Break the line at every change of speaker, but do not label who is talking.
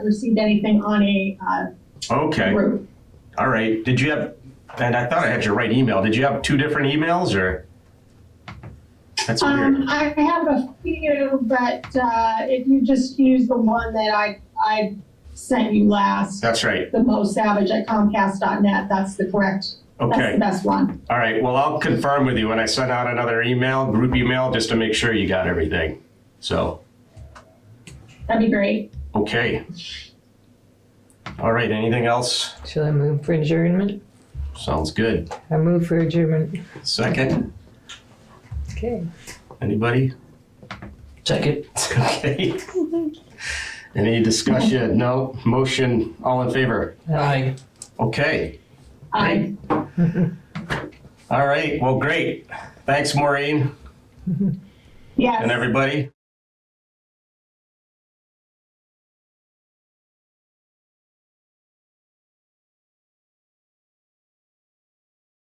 received anything on a uh,
Okay,
group.
all right. Did you have, and I thought I had your right email. Did you have two different emails or? That's weird.
Um, I have a few, but uh, if you just use the one that I, I sent you last,
That's right.
the Mo Savage at Comcast.net, that's the correct, that's the
Okay,
best one.
all right. Well, I'll confirm with you when I send out another email, group email, just to make sure you got everything. So,
That'd be great.
okay. All right, anything else?
Shall I move for adjournment?
Sounds good.
I move for adjournment.
Second,
Okay.
anybody?
Check it.
Okay. Any discussion? No? Motion, all in favor?
Aye.
Okay.
I-
All right. Well, great. Thanks, Maureen
Yes.
and everybody.